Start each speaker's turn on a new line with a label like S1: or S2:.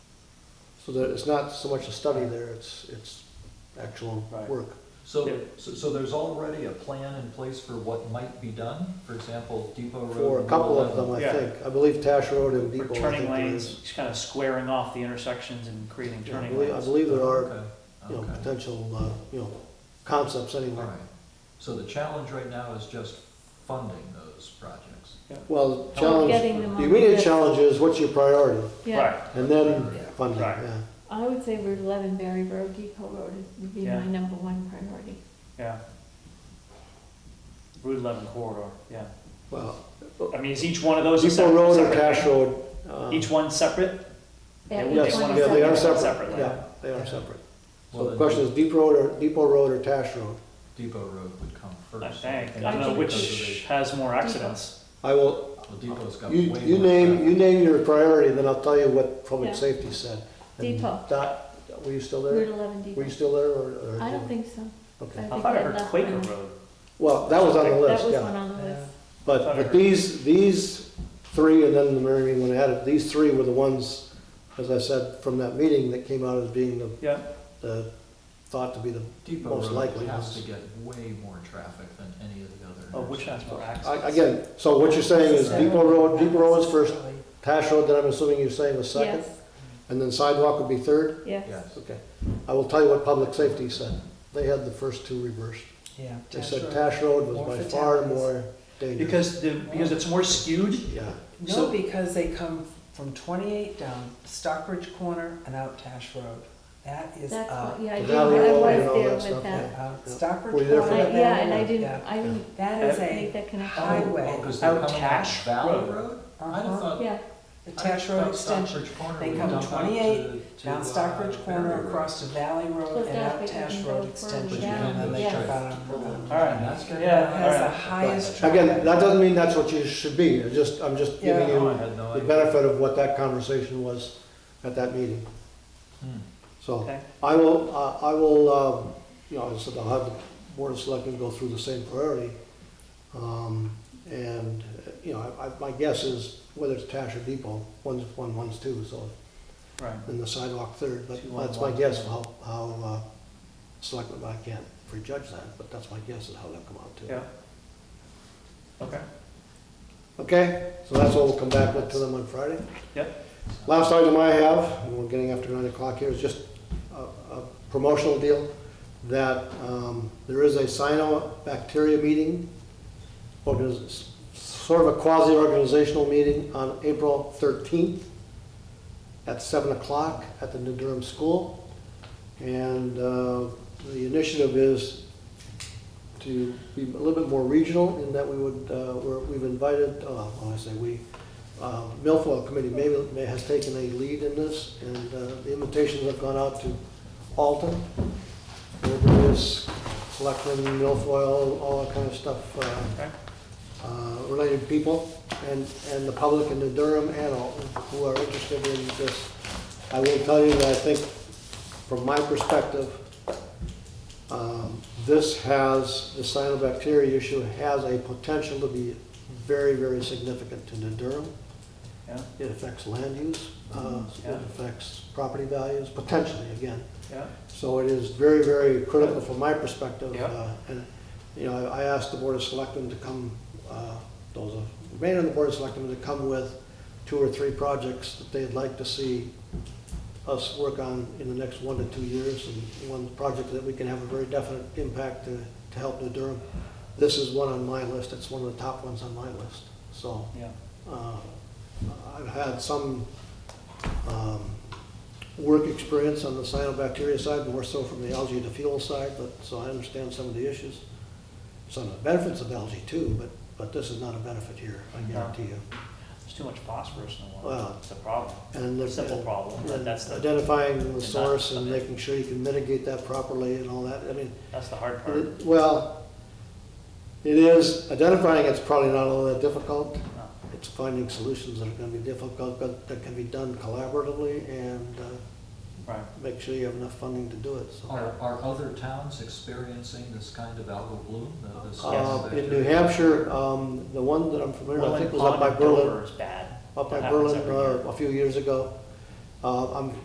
S1: So that it's not so much a study there, it's, it's actual
S2: Right.
S1: work. Yeah.
S3: So, so, so there's already a plan in place for what might be done? For example, Depot Road.
S1: For a
S3: Route
S1: couple of
S3: 11.
S1: them, I
S2: Yeah.
S1: think. I believe Tash Road and
S2: For
S1: Depot. I think
S2: turning
S1: there
S2: lanes,
S1: is.
S2: just kind of squaring off the intersections and creating
S1: Yeah, I
S2: turning
S1: believe- I
S2: lanes.
S1: believe there are,
S3: Okay,
S1: you know,
S3: okay,
S1: potential, uh, you know, concepts
S3: all
S1: anyway.
S3: right. So the challenge right now is just funding those projects.
S1: Well, the
S3: Well,
S1: challenge,
S4: Getting them
S1: the
S4: on
S1: immediate
S4: good-
S1: challenge is what's your priority?
S4: Yeah,
S2: Right,
S1: And then
S3: Yeah.
S1: funding,
S2: Right.
S1: yeah.
S4: I would say Route 11, Berry Road, Depot Road would be
S2: Yeah.
S4: my number one priority.
S2: yeah. Route eleven corridor, yeah.
S1: Well,
S2: I mean, is each one of those? a
S1: Depot
S2: separate-
S1: Road or
S2: separate
S1: Tash
S2: thing?
S1: Road. um,
S2: Each one separate?
S4: Yeah,
S2: They
S4: each
S1: Yes,
S2: one
S4: one
S1: yeah,
S4: is
S1: they are
S2: separate.
S1: separate,
S2: Separate
S1: yeah,
S2: layout.
S1: they are
S3: Yeah.
S1: separate. So
S3: Well,
S1: the
S3: then
S1: question is Depot Road or, Depot Road or Tash Road?
S3: Depot Road would come first.
S2: I think, I
S3: And
S2: don't know
S3: just
S2: which has more accidents.
S1: I will,
S3: because of the- Well, Depot's got way
S1: you,
S3: more.
S1: you name, you
S3: traffic.
S1: name your priority, then I'll tell you what public
S4: Yeah.
S1: safety said. And
S4: Depot.
S1: Dot, were you still
S4: Route
S1: there?
S4: 11,
S1: Were you
S4: Depot.
S1: still there or? or-
S4: I don't think so.
S1: Okay,
S2: I thought I heard Quaker Road.
S1: well, that was on the
S2: That
S1: list,
S4: That was one
S1: yeah.
S4: on the list.
S1: But, but these, these three, and then the Marion one added, these three were the ones, as I said, from that meeting that came out as being the,
S2: Yeah,
S1: the, thought to be the,
S3: Depot
S1: most
S3: Road
S1: likely
S3: has
S1: is-
S3: to get way more traffic than any of the other.
S2: oh, which has
S3: intersections.
S2: more
S1: I-
S2: accidents?
S1: again, so what you're saying is Depot Road, Depot Road is first, Tash Road, then I'm assuming you're saying was second?
S4: Yes,
S1: And then sidewalk would be third?
S4: yes.
S3: Yes.
S1: Okay. I will tell you what public safety said. They had the first two reversed.
S5: Yeah.
S1: They
S5: Tash
S1: said
S5: Road.
S1: Tash Road was
S5: More
S1: by far
S5: fatalities.
S1: more dangerous.
S2: Because the, because it's more skewed?
S1: Yeah,
S5: No,
S2: So-
S5: because they come from twenty-eight down Stockbridge Corner and out Tash Road. That is
S4: That's,
S5: up.
S4: what- yeah, I
S1: uh, The
S4: did,
S1: Valley
S4: I
S1: Road and all that
S4: was there
S1: stuff,
S4: with that.
S5: Out
S1: Yeah.
S5: Stockbridge
S1: Were you there for
S5: Corner.
S1: that?
S4: I- Yeah, and I
S5: Yeah.
S4: didn't, I didn't
S5: That is
S4: make
S5: a
S4: that connection.
S5: highway.
S3: Oh, because they're
S2: Out
S3: coming up
S2: Tash
S3: Valley
S2: Road.
S3: Road? I'd have
S5: Uh-huh.
S3: thought.
S4: Yeah,
S5: The Tash Road extension, They come 28
S3: uh,
S5: down Stockbridge Corner, across to Valley Road,
S4: Close
S5: and
S4: down,
S5: out
S4: they can
S5: Tash
S4: go
S5: Road
S4: further
S5: extension.
S4: down.
S5: And then they
S4: Yes.
S5: jump out on Route
S3: All
S5: 11.
S3: right, that's good.
S2: Yeah,
S5: That has the
S2: alright.
S5: highest traffic.
S1: Again, that doesn't mean that's what you should be. I'm just, I'm just giving
S3: No, Oh, I
S1: you
S3: had no
S1: the
S3: idea.
S1: benefit of what that conversation was at that meeting.
S3: Hmm.
S1: So
S2: Okay.
S1: I will, uh, I will, um, you know, I said I'll have the board of selectmen go through the same priority. Um, And, uh, you know, I, I- my guess is whether it's Tash or Depot, one's one, one's two, so
S2: Right.
S1: and the sidewalk third, but
S2: Two on
S1: that's my
S2: one.
S1: guess of how, how, uh, selectmen, I can't prejudge that, but that's my guess of how they'll come out
S2: Yeah.
S1: to.
S2: Okay.
S1: Okay, so that's what we'll come back with to them on Friday.
S2: Yep.
S1: Last item I have, and we're getting after nine o'clock here, is just a, a promotional deal that, um, there is a cyanobacteria meeting, organiz- sort of a quasi-organizational meeting on April thirteenth at seven o'clock at the New Durham School. And, uh, the initiative is to be a little bit more regional in that we would, uh, we're, we've invited, uh, when I say we, uh, Milfoil Committee may, may, has taken a lead in this, and, uh, the invitations have gone out to Alton, where various selectmen, Milfoil, all that kind of stuff, uh,
S2: Okay.
S1: uh, related people, and, and the public in the Durham and all who are interested in this. I will tell you that I think, from my perspective, um, This has, the cyanobacteria issue has a potential to be very, very significant to New Durham.
S2: Yeah,
S1: It affects land use, uh, it
S2: Yeah.
S1: affects property values, potentially, again.
S2: yeah.
S1: So it is very, very critical from my perspective.
S2: Yeah.
S1: uh, And, you know, I I asked the Board of Selectmen to come, uh, those of, remain on the Board of Selectmen to come with two or three projects that they'd like to see us work on in the next one to two years, and one project that we can have a very definite impact to, to help New Durham. This is one on my list, it's one of the top ones on my list, so.
S2: Yeah.
S1: Uh, I've had some um, work experience on the cyanobacteria side, more so from the algae to fuel side, but, so I understand some of the issues. Some of the benefits of algae too, but, but this is not a benefit here, I guarantee you.
S2: There's too much phosphorus in the water.
S1: Well-
S2: It's a problem.
S1: And the-
S2: Simple problem, but
S1: and
S2: that's the,
S1: Identifying the source and making sure you can mitigate that properly and all that, I mean,
S2: that's the hard part.
S1: it- well, it is, identifying it's probably not all that difficult,
S2: No.
S1: it's finding solutions that are gonna be difficult, but that can be done collaboratively and uh,
S2: Right.
S1: make sure you have enough funding to do it, so.
S3: Are, are other towns experiencing this kind of algal bloom? the- this
S1: Uh,
S3: cyanobacteria?
S1: In New Hampshire, um, the one that I'm familiar with, I
S2: Welland
S1: think was up by
S2: Pond in
S1: Berlin, uh,
S2: Dover is bad.
S1: up by
S2: That happens
S1: Berlin
S2: every year.
S1: uh, a few years ago. Uh, I'm